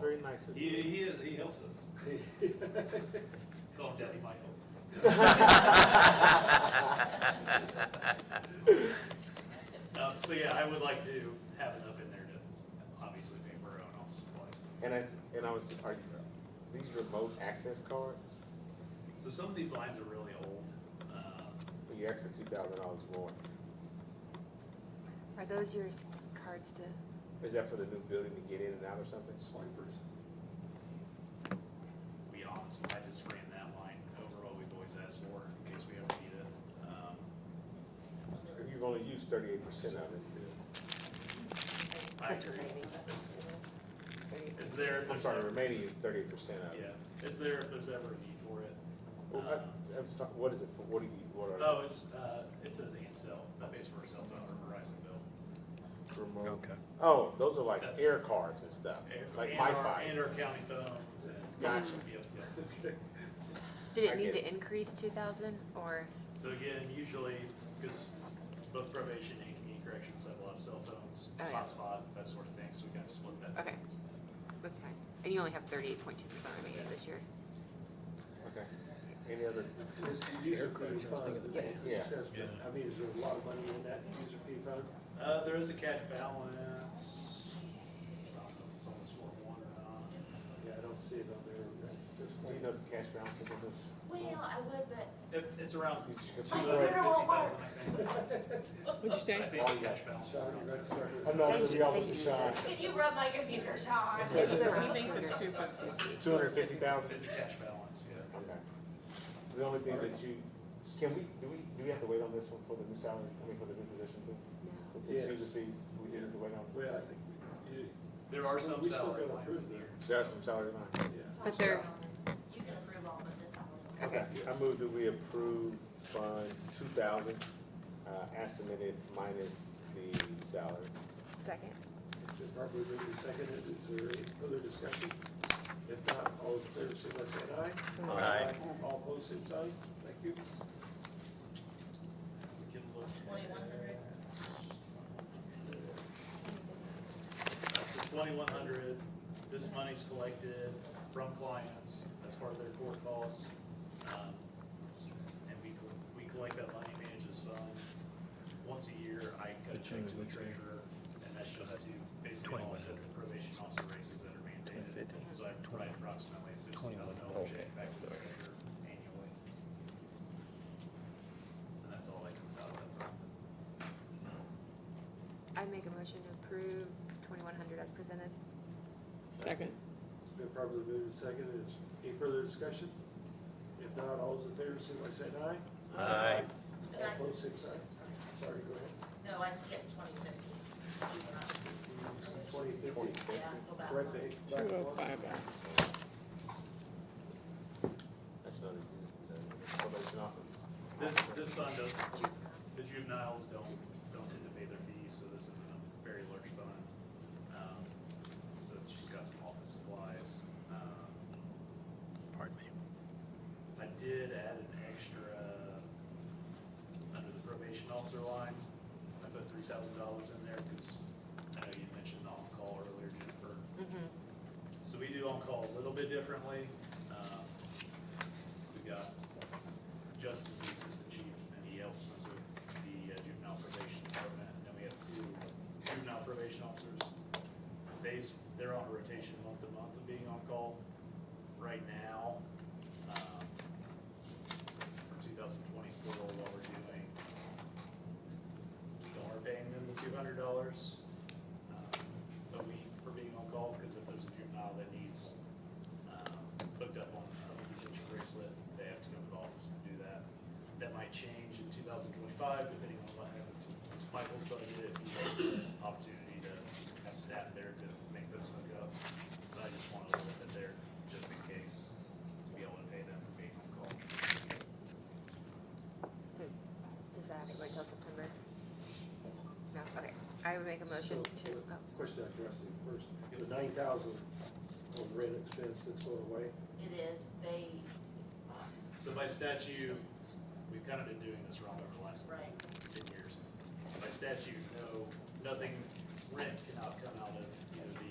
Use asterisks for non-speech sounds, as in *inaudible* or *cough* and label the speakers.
Speaker 1: very nice of
Speaker 2: He,
Speaker 1: you.
Speaker 2: he is, he helps
Speaker 1: *laughs*
Speaker 2: us. Call him Daddy Michael.
Speaker 1: *laughs*
Speaker 2: Um, so yeah, I would like to have enough in there to obviously pay for our own office supplies.
Speaker 1: And I, s- and I was, are you, these remote access cards,
Speaker 2: So some of these lines are really old. Um,
Speaker 1: you're extra two thousand dollars more.
Speaker 3: Are those your s- cards to,
Speaker 1: Is that for the new building to get in and out or something?
Speaker 2: Swipers. We honestly, I just ran that line over what we've always asked for in case we ever need it. Um,
Speaker 1: You've only used thirty-eight percent of it.
Speaker 2: I
Speaker 3: that's
Speaker 2: agree.
Speaker 3: remaining?
Speaker 2: It's, it's there if
Speaker 1: I'm
Speaker 2: there's
Speaker 1: sorry,
Speaker 2: ever,
Speaker 1: remaining is thirty-eight percent of it.
Speaker 2: yeah, it's there if there's ever a need for it. Um,
Speaker 1: Well, I- I was talk- What is it for, what do you, what are
Speaker 2: Oh, it's, uh, it says Ansel, that pays for a cell phone or Verizon bill.
Speaker 1: the remote?
Speaker 4: Okay.
Speaker 1: Oh, those are like
Speaker 2: That's-
Speaker 1: air cards and stuff,
Speaker 2: And-
Speaker 1: like
Speaker 2: and our-
Speaker 1: Wi-Fi.
Speaker 2: And our county phones and.
Speaker 1: Gotcha.
Speaker 2: Yep, yep.
Speaker 3: Did
Speaker 1: I
Speaker 3: it need
Speaker 1: get
Speaker 3: to increase two thousand or,
Speaker 2: So again, usually, because both probation and community corrections have a lot of cell phones,
Speaker 3: Oh, yeah.
Speaker 2: hotspots, that sort of thing, so we kind of split that.
Speaker 3: okay, that's fine. And you only have thirty-eight point two percent remaining this year.
Speaker 1: Okay. Any other,
Speaker 5: User fee fund.
Speaker 1: yeah,
Speaker 2: Yeah.
Speaker 5: I mean, is there a lot of money in that user fee fund?
Speaker 2: Uh, there is a cash balance. I don't know if it's on this four one or not.
Speaker 5: Yeah, I don't see it on there at this
Speaker 1: do you
Speaker 5: point.
Speaker 1: know the cash balance of this?
Speaker 6: Well, I would, but
Speaker 2: It, it's around two
Speaker 1: It's
Speaker 2: hundred fifty
Speaker 6: literal
Speaker 2: thousand,
Speaker 6: work.
Speaker 2: I
Speaker 7: What'd you
Speaker 2: think.
Speaker 7: say?
Speaker 2: I think the cash balance. is
Speaker 5: Sorry,
Speaker 2: around
Speaker 5: right,
Speaker 2: that.
Speaker 5: sorry.
Speaker 1: I'm not sure y'all
Speaker 3: Thank you.
Speaker 1: would sign
Speaker 6: can you rub my computer, Sean?
Speaker 3: *laughs* It's around
Speaker 7: He thinks it's
Speaker 3: 200.
Speaker 7: two fifty.
Speaker 1: two hundred fifty thousand?
Speaker 2: It's a cash balance, yeah.
Speaker 1: Okay. The only thing that you, can we, do we, do we have to wait on this one for the new salary, I mean, for the new position too?
Speaker 3: No.
Speaker 1: For these user
Speaker 5: Yes.
Speaker 1: fees, we didn't have to wait on.
Speaker 5: Well, I think, we- you,
Speaker 2: There are
Speaker 5: Well,
Speaker 2: some
Speaker 5: we still
Speaker 2: salary
Speaker 5: gotta
Speaker 2: lines
Speaker 5: approve
Speaker 2: in there.
Speaker 1: There are some salary lines.
Speaker 5: yeah.
Speaker 3: But they're-
Speaker 6: You can approve all of this on
Speaker 3: Okay.
Speaker 1: I move that we approve Fund two thousand, uh, as submitted minus the salary.
Speaker 3: Second.
Speaker 5: It's been properly moved and seconded. Is there any further discussion? If not, all those in favor, signify by saying aye. Aye. All opposed, same sign. Thank you.
Speaker 2: We can look.
Speaker 6: twenty-one hundred.
Speaker 2: Uh, So twenty-one hundred, this money's collected from clients as part of their court costs. Um, And we, col- we collect that money, manage this fund. Once a year, I cut a check to the treasurer, and that's just to basically offset the probation officer raises that are mandated. So I provide approximately a sixty thousand dollar check back to the treasurer annually. And that's all that comes out of that fund.
Speaker 3: I make a motion to approve twenty-one hundred as presented.
Speaker 7: Second.
Speaker 5: It's been properly moved and seconded. Is any further discussion? If not, all those in favor, signify by saying aye. Aye.
Speaker 6: But
Speaker 5: All
Speaker 6: I,
Speaker 5: opposed,
Speaker 6: s-
Speaker 5: same sign. Sorry, go ahead.
Speaker 6: no, I skipped twenty fifty.
Speaker 5: Twenty
Speaker 1: Twenty
Speaker 5: fifty,
Speaker 6: Yeah,
Speaker 1: fifty.
Speaker 6: go back.
Speaker 5: correct the.
Speaker 7: Two oh five back.
Speaker 1: That's another, that's probation officer.
Speaker 2: This, this fund doesn't The juveniles don't, don't tend to pay their fees, so this isn't a very large fund. Um, So it's just got some office supplies. Um,
Speaker 4: Pardon me.
Speaker 2: I did add an extra, uh, under the probation officer line, I put three thousand dollars in there because I know you mentioned on-call earlier, Jennifer. So we do on-call a little bit differently. Um, We got Justin's the assistant chief, and he helps us with the uh, juvenile probation department, and then we have two juvenile probation officers. They's, they're on a rotation month to month of being on-call right now. um, For two thousand twenty-four, while we're doing, we are paying them the two hundred dollars um, a week for being on call, because if there's a juvenile that needs um, hooked up on a detention bracelet, they have to come to the office to do that. That might change in two thousand twenty-five, depending on what happens with Michael's budget, if he has the opportunity to have staff there to make those hook up. But I just wanted to put that there, just in case, to be able to pay them for being on call.
Speaker 3: So does that have to wait till September? No, okay. I would make a motion to, oh,
Speaker 5: Question I addressed you first. The nine thousand on rent expense that's going away.
Speaker 6: It is, they,
Speaker 2: So by statute, we've kind of been doing this wrong over the last
Speaker 6: right,
Speaker 2: ten years. By statute, no, nothing, rent cannot come out of